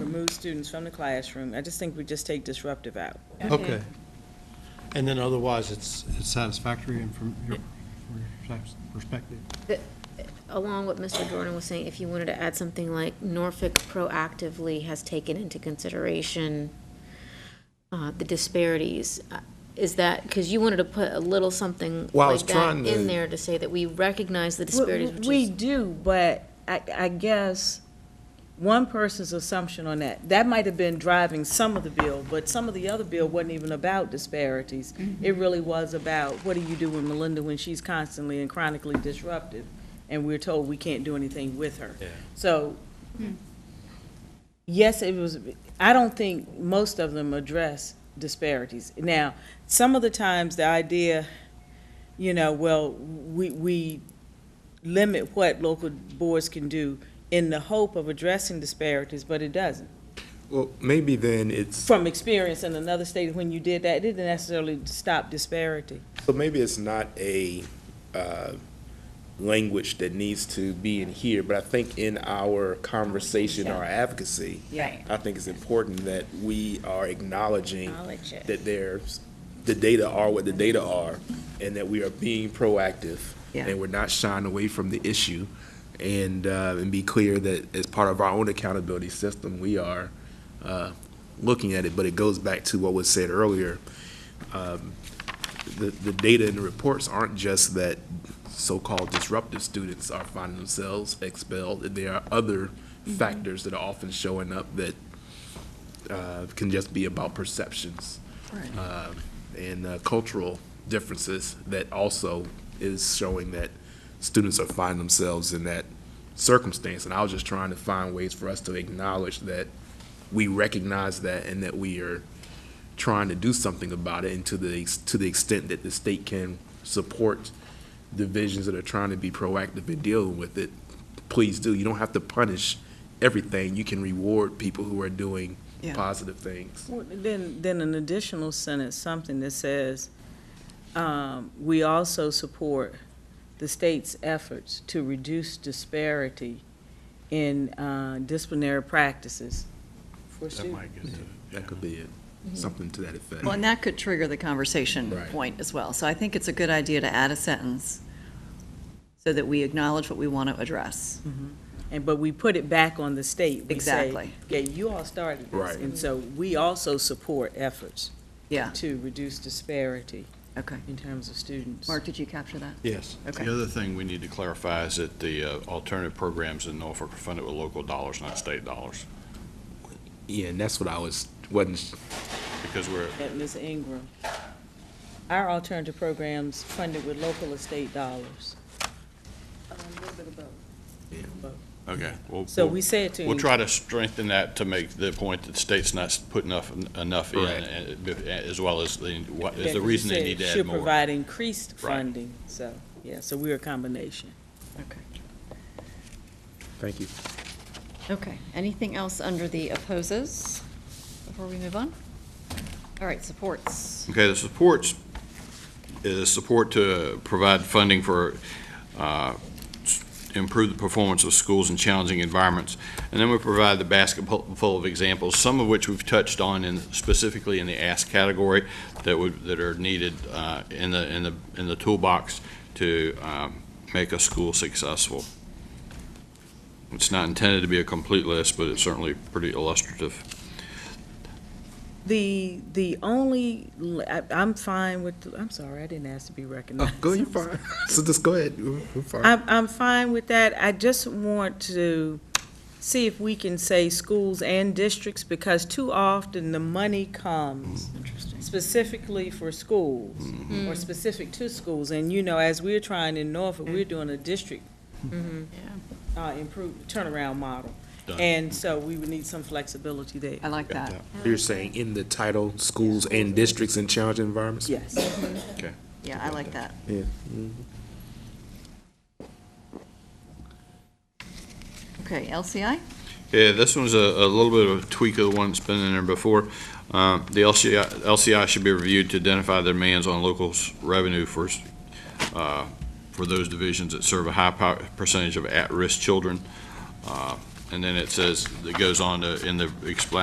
remove students from the classroom. I just think we just take disruptive out. Okay. And then otherwise, it's it's satisfactory and from your your perspective? Along what Mr. Jordan was saying, if you wanted to add something like Norfolk proactively has taken into consideration uh, the disparities, uh, is that, because you wanted to put a little something Well, I was like that trying to- in there to say that we recognize the disparities, which We is, do, but I, I guess one person's assumption on that, that might have been driving some of the bill, but some of the other bill wasn't even about disparities. Mm-hmm. It really was about, what do you do with Melinda when she's constantly and chronically disruptive? And we're told we can't do anything with her. So, Hmm. yes, it was, I don't think most of them address disparities. Now, some of the times, the idea, you know, well, we, we limit what local boards can do in the hope of addressing disparities, but it doesn't. Well, maybe then it's, From experience in another state, when you did that, it didn't necessarily stop disparity. so maybe it's not a uh, language that needs to be in here, but I think in our conversation, our advocacy, Yeah. I think it's important that we are acknowledging Acknowledge it. that there's, the data are what the data are, and that we are being proactive, Yeah. and we're not shying away from the issue, and, uh, and be clear that as part of our own accountability system, we are uh, looking at it, but it goes back to what was said earlier. Um, The, the data and the reports aren't just that so-called disruptive students are finding themselves expelled, there are other factors that are often showing up that uh, can just be about perceptions um, and uh, cultural differences that also is showing that students are finding themselves in that circumstance. And I was just trying to find ways for us to acknowledge that we recognize that and that we are trying to do something about it and to the, ex- to the extent that the state can support divisions that are trying to be proactive in dealing with it, please do. You don't have to punish everything. You can reward people who are doing Yeah. positive things. Well, Then, then an additional sentence, something that says, um, we also support the state's efforts to reduce disparity in uh, disciplinary practices for students. That could be it, something to that effect. Well, and that could trigger the conversation Right. point as well. So I think it's a good idea to add a sentence so that we acknowledge what we want to address. And, but we put it back on the state. We say, Exactly. Yeah, you all started this. Right. And so we also support efforts Yeah, to reduce disparity okay. in terms of students. Mark, did you capture that? Yes. Okay. The other thing we need to clarify is that the uh, alternative programs in Norfolk are funded with local dollars, not state dollars, Yeah, and that's what I was, wasn't, because we're, At Ms. Ingram, our alternative programs funded with local estate dollars. okay. we'll- So we'll- we said to. We'll try to strengthen that to make the point that the state's not putting enough, enough in, Correct. and- and- as well as the, what that is the reason they said need to add Should more. provide increased Right. funding, so, yeah, so we're a combination. Okay. thank you. Okay. Anything else under the opposes before we move on? All right, supports. Okay, the supports, is support to provide funding for, uh, s- improve the performance of schools in challenging environments. And then we provide the basket pu- full of examples, some of which we've touched on in, specifically in the ask category that would, that are needed, uh, in the, in the, in the toolbox to, um, make a school successful. It's not intended to be a complete list, but it's certainly pretty illustrative. The, the only, l- I- I'm fine with, the- I'm sorry, I didn't ask to be Oh, recognized. go, you're I'm sorry. fine. So just go ahead. You're you're fine. I'm, I'm fine with that. I just want to see if we can say schools and districts, because too often the money comes Interesting. specifically for schools, or specific to schools, and you know, as we're trying in Norfolk, we're doing a district uh, improve, turnaround model. Done. And so we would need some flexibility there. I like that. You're saying in the title, schools and districts in challenging environments? Yes. Yeah, I like that. Yeah. Okay, LCI? Yeah, this one's a, a little bit of a tweak of the one that's been in there before. Uh, The LCI, LCI should be reviewed to identify their demands on local revenue for, s- uh, for those divisions that serve a high po- percentage of at-risk children. Uh, And then it says, it goes on to, in the explanatory